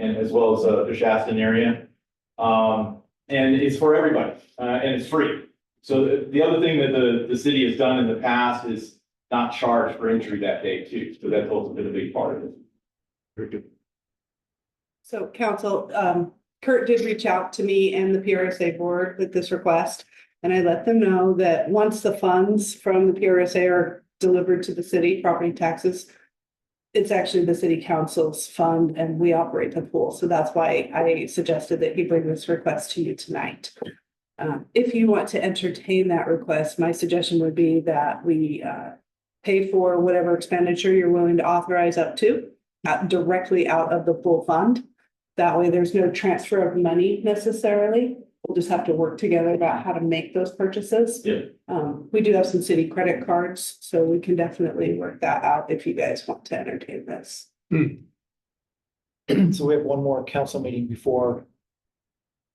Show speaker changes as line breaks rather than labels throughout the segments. and as well as uh, the Shaston area. Um, and it's for everybody, uh, and it's free. So the, the other thing that the, the city has done in the past is not charge for entry that day too, so that's also been a big part of it. Very good.
So council, um, Kurt did reach out to me and the PRSA board with this request. And I let them know that once the funds from the PRSA are delivered to the city, property taxes. It's actually the city council's fund and we operate the pool. So that's why I suggested that he bring this request to you tonight. Um, if you want to entertain that request, my suggestion would be that we, uh, pay for whatever expenditure you're willing to authorize up to uh, directly out of the pool fund. That way, there's no transfer of money necessarily. We'll just have to work together about how to make those purchases.
Yeah.
Um, we do have some city credit cards, so we can definitely work that out if you guys want to entertain this.
So we have one more council meeting before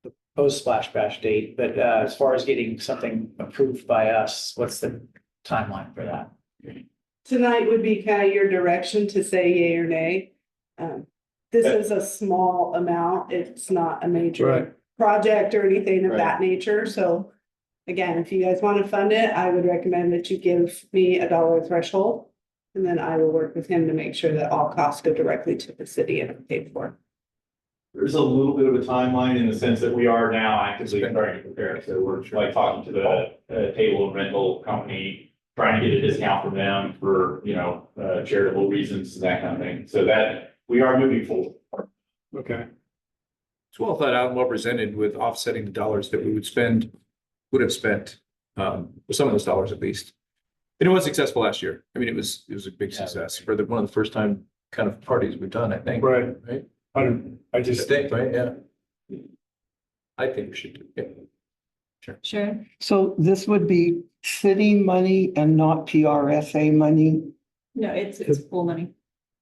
the post splash bash date, but uh, as far as getting something approved by us, what's the timeline for that?
Tonight would be kind of your direction to say yay or nay. Um, this is a small amount. It's not a
Right.
major project or anything of that nature, so. Again, if you guys want to fund it, I would recommend that you give me a dollar threshold. And then I will work with him to make sure that all costs go directly to the city and are paid for.
There's a little bit of a timeline in the sense that we are now actively starting to prepare, so we're like talking to the uh, table and rental company, trying to get a discount from them for, you know, uh, charitable reasons and that kind of thing. So that, we are moving forward.
Okay. It's well thought out and well presented with offsetting the dollars that we would spend, would have spent, um, some of those dollars at least. And it was successful last year. I mean, it was, it was a big
Yeah.
success for the, one of the first time kind of parties we've done, I think.
Right.
Right?
I, I just,
Distinct, right? Yeah. I think we should do, it.
Sure.
So this would be city money and not PRSA money,
No, it's, it's pool money.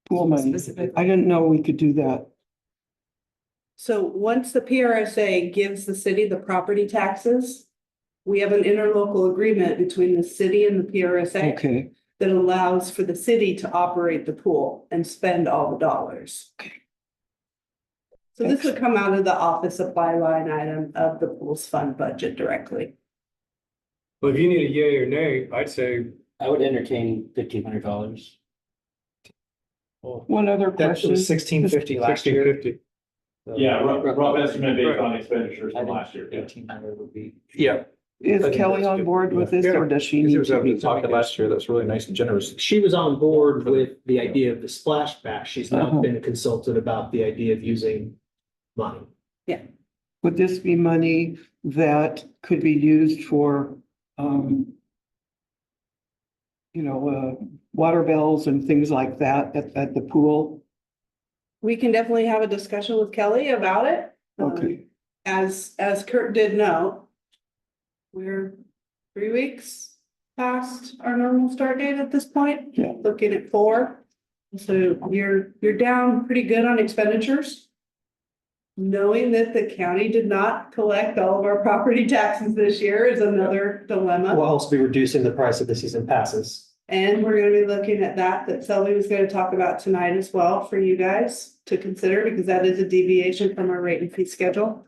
pool money.
Specific.
I didn't know we could do that.
So once the PRSA gives the city the property taxes. We have an interlocal agreement between the city and the PRSA.
Okay,
that allows for the city to operate the pool and spend all the dollars. So this would come out of the office supply line item of the pool's fund budget directly.
well, if you need a yay or nay, I'd say,
I would entertain fifteen hundred dollars.
one other
That
question.
was sixteen fifty last
sixteen
year.
fifty.
Yeah, rough, rough estimate based on expenditures from last year. yeah.
Eighteen hundred would be.
yeah. I
Is
think
Kelly
that's
on
good.
board with this or does she
Because it
need
was
to
up
be?
to talk last year. That's really nice and generous.
She was on board with the idea of the splash bash. She's
Uh-huh.
not been consulted about the idea of using money.
Would this be money that could be used for, um, you know, uh, water bills and things like that at, at the pool?
We can definitely have a discussion with Kelly about it. Um,
Okay.
As, as Kurt did know, we're three weeks past our normal start date at this point.
Yeah.
Looking at four. So you're, you're down pretty good on expenditures. Knowing that the county did not collect all of our property taxes this year is another dilemma.
We'll also be reducing the price of the season passes.
And we're gonna be looking at that, that Selby was gonna talk about tonight as well for you guys to consider, because that is a deviation from our rate and fee schedule.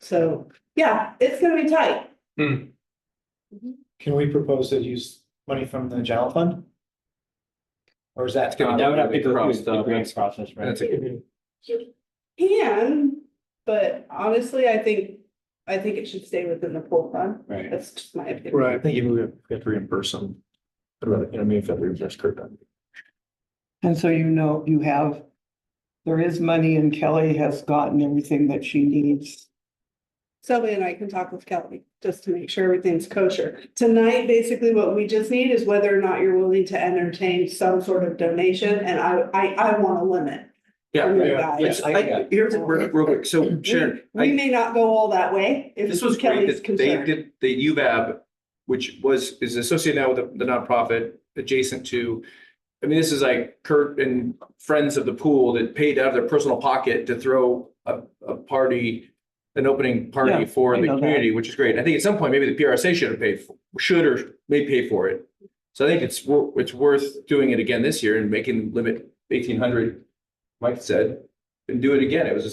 So, yeah, it's gonna be tight.
Can we propose to use money from the general fund? Or is that?
That would have to go through the grants
process,
right? That's
You Can, but honestly, I think, I think it should stay within the pool fund.
Right.
That's just my opinion.
I
Right.
think even we have we have to reimburse them. I'd rather, you know, I mean, if that reimburse Kurt, that'd be-
And so you know, you have, there is money and Kelly has gotten everything that she needs.
Sylvia and I can talk with Kelly, just to make sure everything's kosher. Tonight, basically, what we just need is whether or not you're willing to entertain some sort of donation, and I, I, I want a limit. from you
yeah,
guys.
Yes, I, here's, real real quick, so Sharon. I-
We may not go all that way. if
This was great
Kelly's
that they
concerned.
did the UVAB, which was, is associated now with the- the nonprofit adjacent to. I mean, this is like Kurt and friends of the pool that paid out of their personal pocket to throw a, a party, an opening party
Yeah,
for
I
the
know that.
community, which is great. I think at some point, maybe the PRSA should have paid, for should or may pay for it. So I think it's, wor- it's worth doing it again this year and making the limit eighteen hundred, Mike said. and do it again. It was a